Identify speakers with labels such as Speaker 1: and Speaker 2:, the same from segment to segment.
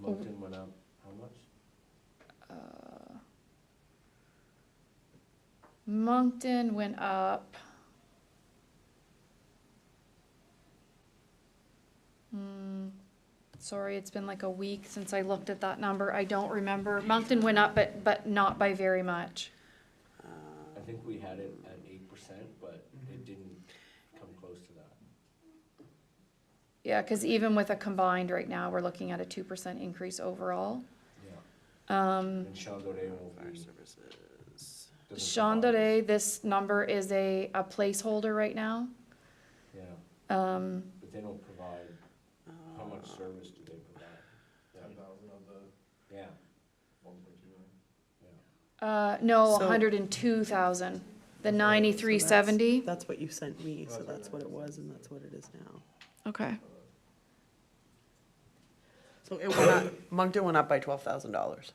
Speaker 1: Moncton went up, how much?
Speaker 2: Uh, Moncton went up. Hmm, sorry, it's been like a week since I looked at that number. I don't remember. Moncton went up, but, but not by very much.
Speaker 1: I think we had it at eight percent, but it didn't come close to that.
Speaker 2: Yeah, cause even with a combined right now, we're looking at a two percent increase overall.
Speaker 1: Yeah.
Speaker 2: Um,
Speaker 1: And Chandore will
Speaker 3: Fire
Speaker 1: be.
Speaker 3: services.
Speaker 2: Chandere, this number is a, a placeholder right now.
Speaker 1: Yeah,
Speaker 2: Um,
Speaker 1: but they don't provide, how much service do they provide?
Speaker 4: Ten
Speaker 1: Yeah,
Speaker 4: thousand of the
Speaker 1: Yeah,
Speaker 4: one point two million.
Speaker 2: Uh, no,
Speaker 3: So-
Speaker 2: hundred and two thousand, the ninety-three seventy,
Speaker 3: That's what you sent me, so
Speaker 4: That's
Speaker 3: that's what
Speaker 4: what I
Speaker 3: it was and that's what it is now.
Speaker 2: okay.
Speaker 3: So it went up, Moncton went up by twelve thousand dollars.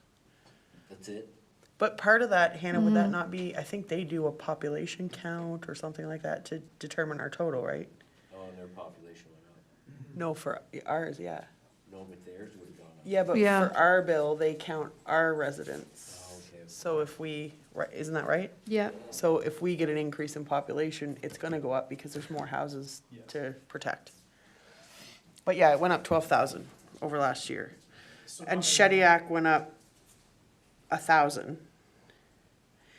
Speaker 1: that's it.
Speaker 3: But part of that, Hannah, would that not be, I think they do a population count or something like that to determine our total, right?
Speaker 1: Oh, and their population went up.
Speaker 3: No, for ours, yeah.
Speaker 1: No, but theirs would have gone up.
Speaker 3: Yeah, but
Speaker 2: Yeah.
Speaker 3: for our bill, they count our
Speaker 1: Oh,
Speaker 3: residents.
Speaker 1: okay.
Speaker 3: So if we, right, isn't that right?
Speaker 2: Yeah,
Speaker 3: So if we get an increase in population, it's gonna go up because there's more houses
Speaker 4: Yes.
Speaker 3: to protect. But yeah, it went up twelve thousand over last year. And Shediac went up a thousand.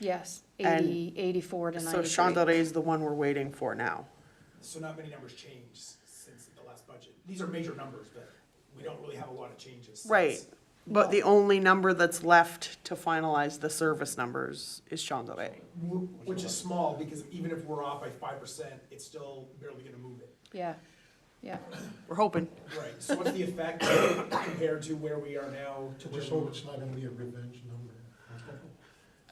Speaker 2: yes,
Speaker 3: And-
Speaker 2: eighty, eighty-four to
Speaker 3: So
Speaker 2: ninety-three.
Speaker 3: Chandelier is the one we're waiting for now.
Speaker 5: So not many numbers changed since the last budget. These are major numbers, but we don't really have a lot of changes. since.
Speaker 3: Right, but the only number that's left to finalize the service numbers is Chandelier.
Speaker 5: Wh- Which is small, because even if we're off by five percent, it's still barely gonna move it.
Speaker 2: Yeah, yeah,
Speaker 3: We're hoping.
Speaker 5: Right, so what's the effect compared to where we are now to where
Speaker 4: Just hope
Speaker 5: we
Speaker 4: it's not gonna be a revenge number.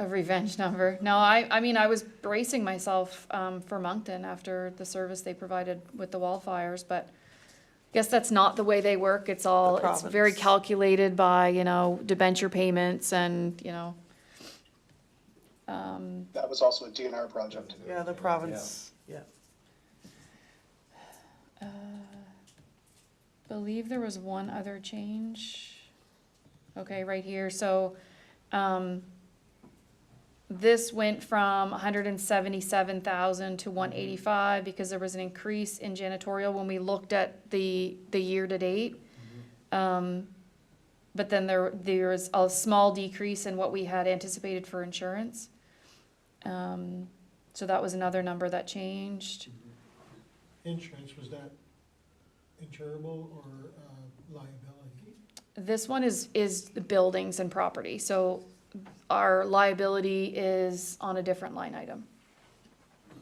Speaker 2: a revenge number. No, I, I mean, I was bracing myself, um, for Moncton after the service they provided with the wildfires, but guess that's not the way they work. It's all,
Speaker 3: The
Speaker 2: it's very
Speaker 3: province.
Speaker 2: calculated by, you know, debenture payments and, you know, um,
Speaker 6: That was also a DNR project.
Speaker 3: Yeah, the province, yeah.
Speaker 2: Uh, Believe there was one other change. Okay, right here, so, um, this went from hundred and seventy-seven thousand to one eighty-five because there was an increase in janitorial when we looked at the, the year-to-date. Um, but then there, there is a small decrease in what we had anticipated for insurance. Um, so that was another number that changed.
Speaker 4: Insurance, was that insurable or uh, liability?
Speaker 2: This one is, is the buildings and property, so our liability is on a different line item.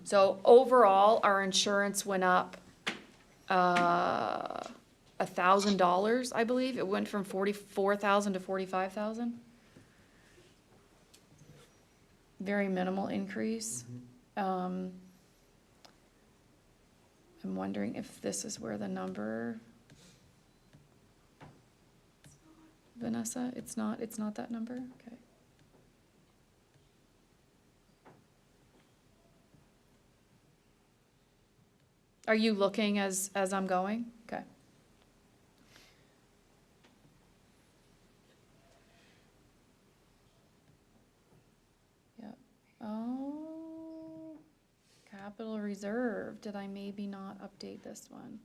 Speaker 2: So overall, our insurance went up, uh, a thousand dollars, I believe, it went from forty-four thousand to forty-five thousand. Very minimal increase, um. I'm wondering if this is where the number. Vanessa, it's not, it's not that number, okay. Are you looking as, as I'm going? Okay. Yep, oh, capital reserve, did I maybe not update this one?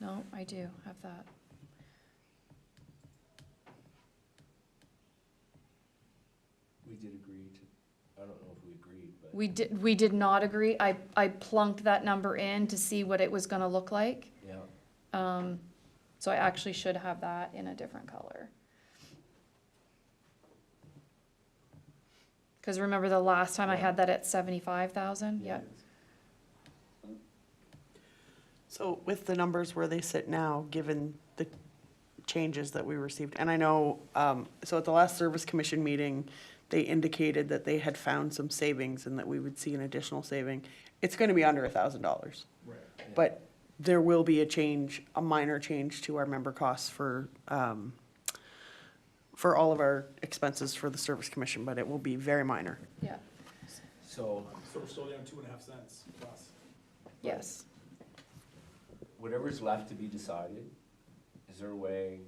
Speaker 2: No, I do have that.
Speaker 1: We did agree to, I don't know if we agreed, but.
Speaker 2: We did, we did not agree. I, I plunked that number in to see what it was gonna look like.
Speaker 1: Yeah,
Speaker 2: Um, so I actually should have that in a different color. Cause remember the last time I had that at seventy-five thousand? Yep.
Speaker 3: So with the numbers where they sit now, given the changes that we received, and I know, um, so at the last service commission meeting, they indicated that they had found some savings and that we would see an additional saving. It's gonna be under a thousand dollars,
Speaker 4: Right.
Speaker 3: but there will be a change, a minor change to our member costs for, um, for all of our expenses for the service commission, but it will be very minor.
Speaker 2: Yeah,
Speaker 1: so
Speaker 5: So we're still down two and a half cents plus.
Speaker 2: yes.
Speaker 1: whatever's left to be decided, is there a way